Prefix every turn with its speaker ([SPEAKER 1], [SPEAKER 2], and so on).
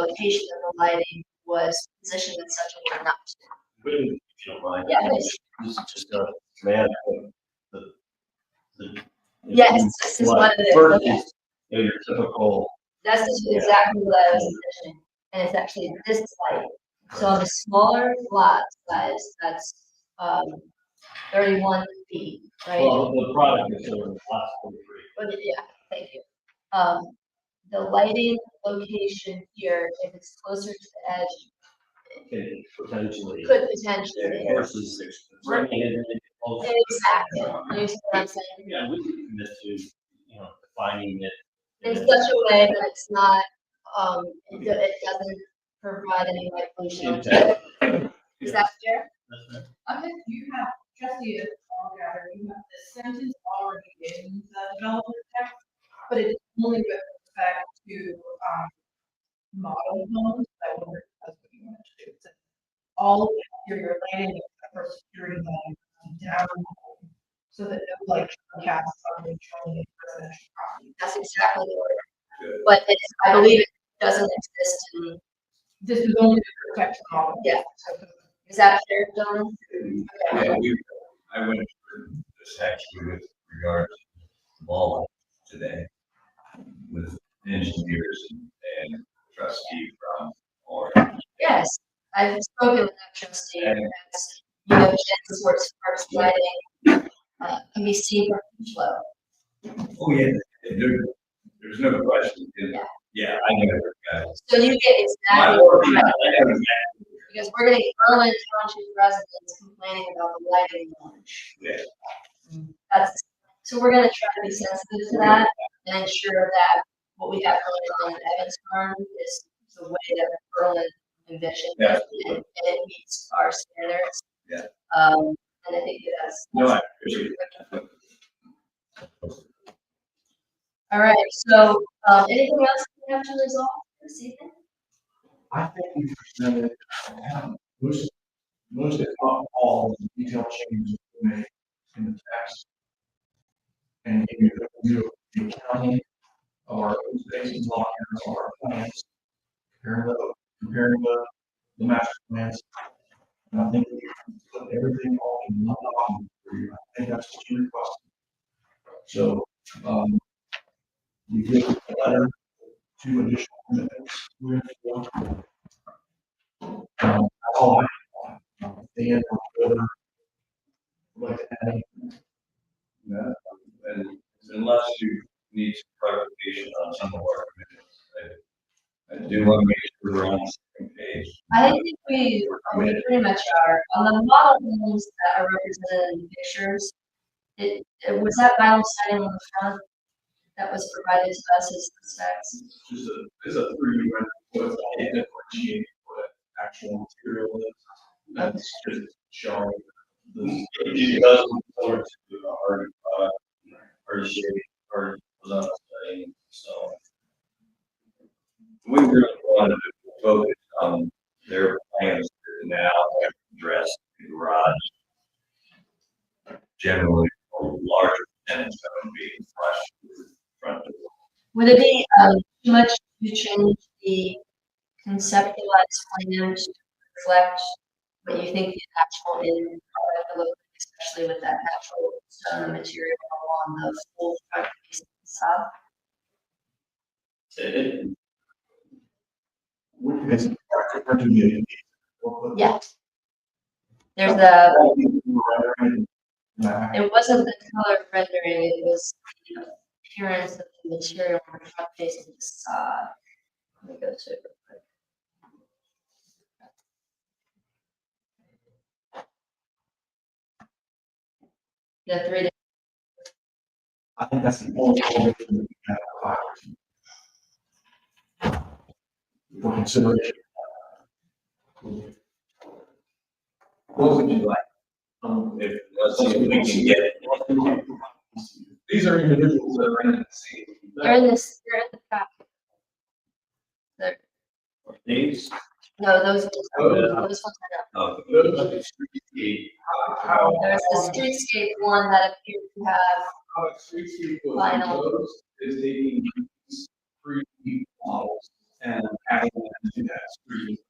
[SPEAKER 1] location of the lighting was positioned in such a way not to.
[SPEAKER 2] Wouldn't, if you don't mind.
[SPEAKER 1] Yeah, please.
[SPEAKER 2] This is just a command of the, the.
[SPEAKER 1] Yes, this is what it is,
[SPEAKER 2] First
[SPEAKER 1] okay.
[SPEAKER 2] is, you know, your typical,
[SPEAKER 1] That's just exactly what I was envisioning, and it's actually this light. So on the smaller lot size, that's, um, thirty-one feet, right?
[SPEAKER 2] well, the product is sort of last forty-three.
[SPEAKER 1] But, yeah, thank you. Um, the lighting location here, if it's closer to the edge,
[SPEAKER 2] Okay, potentially.
[SPEAKER 1] could potentially.
[SPEAKER 2] Versus six. Right.
[SPEAKER 1] Exactly, you understand what I'm saying?
[SPEAKER 2] Yeah, we can commit to, you know, defining it.
[SPEAKER 1] in such
[SPEAKER 2] and-
[SPEAKER 1] a way that it's not, um, it do- it doesn't provide any light pollution.
[SPEAKER 2] Impact.
[SPEAKER 1] Is that fair?
[SPEAKER 2] That's right.
[SPEAKER 3] Okay, you have, trustee, Algar, you have the sentence already in the development text, but it's only with respect to, um, model homes, I wonder if that's what you want to do. So All of your lighting except for security lighting comes down, so that no light can cast on the controlling residential property.
[SPEAKER 1] That's exactly the word. But it's, I believe it doesn't exist in,
[SPEAKER 3] This is only to protect model.
[SPEAKER 1] Yeah.
[SPEAKER 3] So the
[SPEAKER 1] is that fair, John?
[SPEAKER 4] Yeah, uh, we, I went through the section with regards to ball today with engineers and trustee from Orange.
[SPEAKER 1] Yes, I've spoken with that trustee, and that's, you know, Jen's works for lighting, uh, can be seen from each level.
[SPEAKER 4] Oh, yeah. and there- there's no question. and- Yeah, I never got it.
[SPEAKER 1] So you get
[SPEAKER 4] My
[SPEAKER 1] exactly
[SPEAKER 4] work,
[SPEAKER 1] what
[SPEAKER 4] I
[SPEAKER 1] you're
[SPEAKER 4] never got it.
[SPEAKER 1] because we're getting Berlin Township residents complaining about the lighting launch.
[SPEAKER 4] Yeah.
[SPEAKER 1] That's, so we're gonna try to be sensitive to that and ensure that what we have going on in Evans Farm is the way that Berlin envisioned.
[SPEAKER 4] Yeah.
[SPEAKER 1] And and it meets our standards.
[SPEAKER 4] Yeah.
[SPEAKER 1] Um, and I think that that's.
[SPEAKER 4] No, I appreciate
[SPEAKER 1] All right, so, um, anything else we have to resolve this evening?
[SPEAKER 5] I think we presented, um, most, most if not all of the detailed changes we made in the text. And give you the view of the county, our open spaces law, and our plans, comparing the, comparing the, the master plans. And I think we put everything all in one document for you. I think that's what you requested. So, um, we did a letter, two additional commitments, we're going to um, all I, um, Dan, whatever. Like, I,
[SPEAKER 4] that. And unless you need some clarification on some of our commitments, I, I do want to make sure we're on the same page.
[SPEAKER 1] I think we, we pretty much are, on the model homes that are represented in the pictures, it, it was that vinyl siding on the front that was provided to us as the specs.
[SPEAKER 5] just a, is a three, right, what's differentiating what actual material is. That's just showing the
[SPEAKER 2] It does look forward to a hard, uh, hard shape, hard design, so.
[SPEAKER 4] We really wanted to focus on their plans to now address the garage. Generally, or larger tenants that would be flush with front door.
[SPEAKER 1] Would it be, um, too much to change the conceptualized plan to reflect what you think the actual in, product will look like, especially with that natural stone material along the full front face of the facade?
[SPEAKER 2] It,
[SPEAKER 5] which is different to the.
[SPEAKER 1] Yes. There's a,
[SPEAKER 5] Back.
[SPEAKER 1] it wasn't the color rendering, it was the appearance of the material on the front face of the facade. Let me go to it real quick. The three,
[SPEAKER 5] I think that's the only alteration that we have allowed. For consideration.
[SPEAKER 4] What would you like? Um, If, let's see if we can get it.
[SPEAKER 5] These are individuals that are in the same.
[SPEAKER 1] they're in this, they're in the back. They're-
[SPEAKER 2] these,
[SPEAKER 1] no, those, ones-
[SPEAKER 2] Oh, yeah.
[SPEAKER 1] those ones are not.
[SPEAKER 4] Um,
[SPEAKER 5] How,
[SPEAKER 1] There's the streetscape one that appeared to have
[SPEAKER 5] how it treats you
[SPEAKER 1] Vinyl.
[SPEAKER 5] is taking these three models and having them do that.